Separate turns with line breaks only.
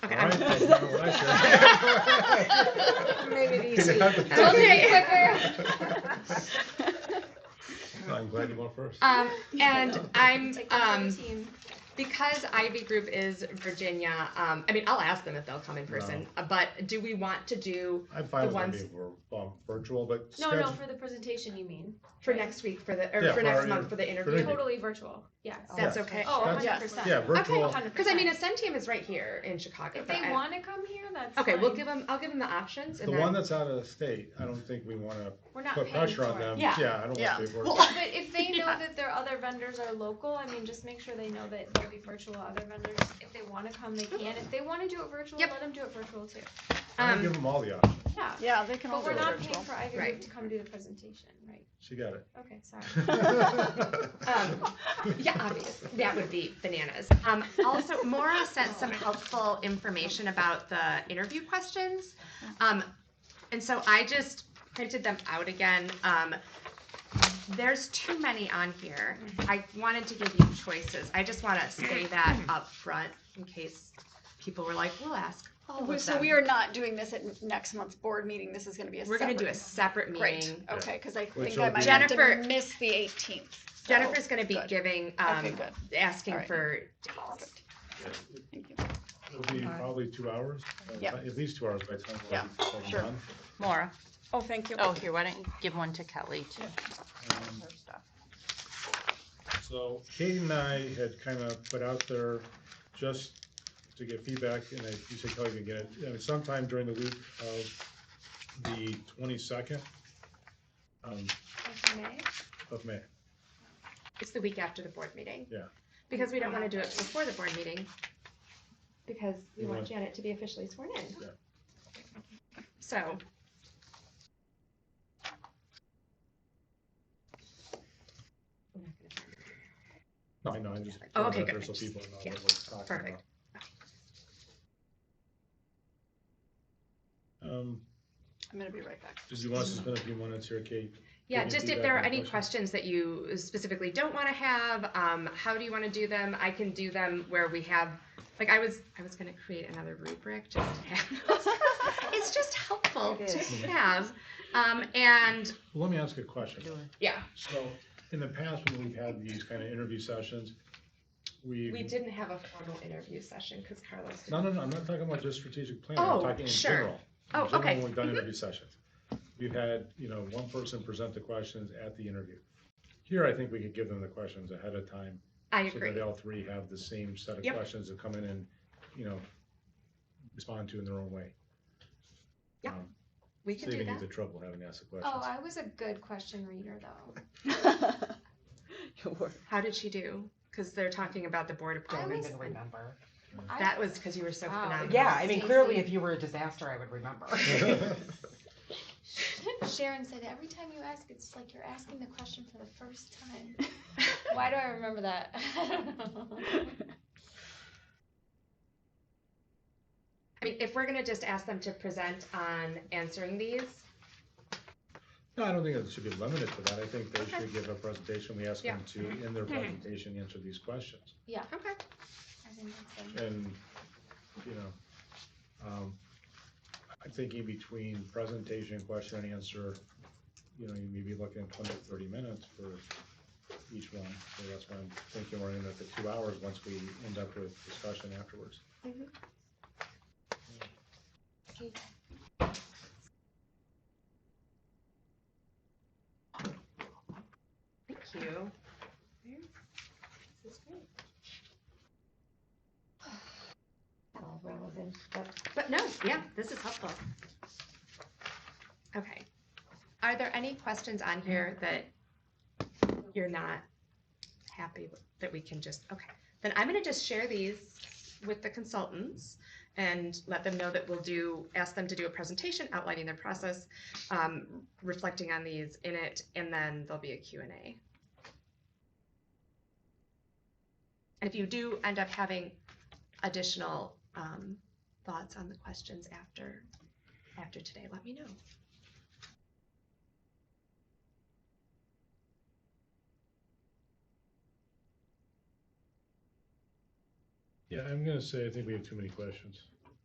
that's what I said.
Made it
Didn't
easy.
have to-
Okay,
I'm glad you went first.
Um, and I'm, um,
Team.
because Ivy Group is Virginia, um, I mean, I'll ask them if they'll come in person, uh, but do we want to do
I'm fine
the
with
ones-
it being vir- um, virtual, but
No, no,
schedule,
for the presentation, you mean?
for next week for the, or
Yeah,
for
for
next
our
month for the interview?
interview.
Totally virtual, yes.
That's
Yeah.
okay.
Oh,
That's-
hundred
Yes.
percent.
yeah, virtual.
Because I mean, Ascend Team is right here in Chicago.
If
but
they
I-
wanna come here, that's
Okay, we'll
fine.
give them, I'll give them the options
The
and
one
then,
that's out of state, I don't think we wanna
We're not
put
paying
pressure
for
on
it.
them.
Yeah.
Yeah, I don't
Yeah.
want to.
Well,
But if they know that their other vendors are local, I mean, just make sure they know that there'll be virtual other vendors. If they wanna come, they can. If they wanna do it virtual,
Yep.
let them do it virtual too.
I'm gonna
um,
give them all the options.
Yeah,
Yeah, they can all
but
do
we're
it
not
virtual.
paying for Ivy
Right.
Group to come do the presentation, right?
She got it.
Okay, sorry.
um, yeah, obviously, that would be bananas. Um, also, Maura sent some helpful information about the interview questions. Um, and so I just printed them out again. Um, there's too many on here. I wanted to give you choices. I just want to say that up front in case people were like, we'll ask all
We-
of
So
them.
we are not doing this at next month's board meeting. This is gonna be a
We're
separate.
gonna do a separate
Great,
meeting.
okay, because I
Which
think
will
I might have to
Jennifer-
miss the eighteenth.
Jennifer's gonna be
good.
giving,
Okay,
um,
good. All
asking
right.
for dates.
Perfect. Thank you.
It'll be probably two hours, uh,
Yeah.
at least two hours by the time. we're
Yeah,
all done.
sure.
Maura.
Oh, thank you.
Oh, here, why don't you give one to Kelly too?
Um, So Katie and I had kind of put out there just to get feedback, and I, you said Kelly can get it, I mean, sometime during the week of the twenty-second um,
Okay, May?
of May.
It's the week after the board meeting.
Yeah.
Because we don't wanna do it before the board meeting, because we
You
want
want-
Janet to be officially sworn in.
Yeah.
So,
No, I know, I just.
Oh,
put
okay,
it out there
good.
So people know
Yeah,
what we're talking
perfect.
about. Um,
I'm gonna be right back.
did you want to spend a few minutes here, Kate?
yeah,
Any
just if
feedback
there are
on
any
questions?
questions that you specifically don't wanna have, um, how do you wanna do them? I can do them where we have, like, I was, I was gonna create another rubric just to have. It's just helpful
It
to
is.
have, um, and,
Let me ask you a question.
yeah,
So, in the past, when we've had these kind of interview sessions, we.
We didn't have a formal interview session because Carlos.
Mm-hmm. No, no, no, I'm not talking about just strategic planning, I'm
Oh,
talking in
sure.
general. In
Oh,
general,
okay.
When we've done
Mhm.
interview sessions, we've had, you know, one person present the questions at the interview. Here, I think we could give them the questions ahead of time.
I
So
agree.
that all three have the same set of
Yep.
questions to come in and, you know, respond to in their own way.
Yeah,
Um,
We can do
Saving you
that.
the trouble of having to ask the questions.
Oh, I was a good question reader though.
How did she do? Because they're talking about the board
I
appointments.
was-
remember.
I-
That was because you were so
Wow.
phenomenal.
Yeah, I mean, clearly,
Stacy.
if you were a disaster, I would remember.
Sharon said, every time you ask, it's like you're asking the question for the first time. Why do I remember that?
I mean, if we're gonna just ask them to present on answering these,
No, I don't think it should be limited to that. I think they
Okay.
should give a presentation. We ask them to, in their presentation, answer these questions.
yeah,
okay.
I think that's good.
And, you know, um, I'm thinking between presentation, question and answer, you know, you may be looking at 20 to 30 minutes for each one. So that's why I'm thinking we're in at the two hours once we end up with discussion afterwards.
Okay.
Thank you. This is great. All relevant, But but no, yeah, this is helpful. Okay. Are there any questions on here that you're not happy with, that we can just, okay. Then I'm gonna just share these with the consultants and let them know that we'll do, ask them to do a presentation outlining their process, um, reflecting on these in it, and then there'll be a Q and A. And if you do end up having additional um, thoughts on the questions after after today, let me know.
Yeah, I'm gonna say, I think we have too many questions.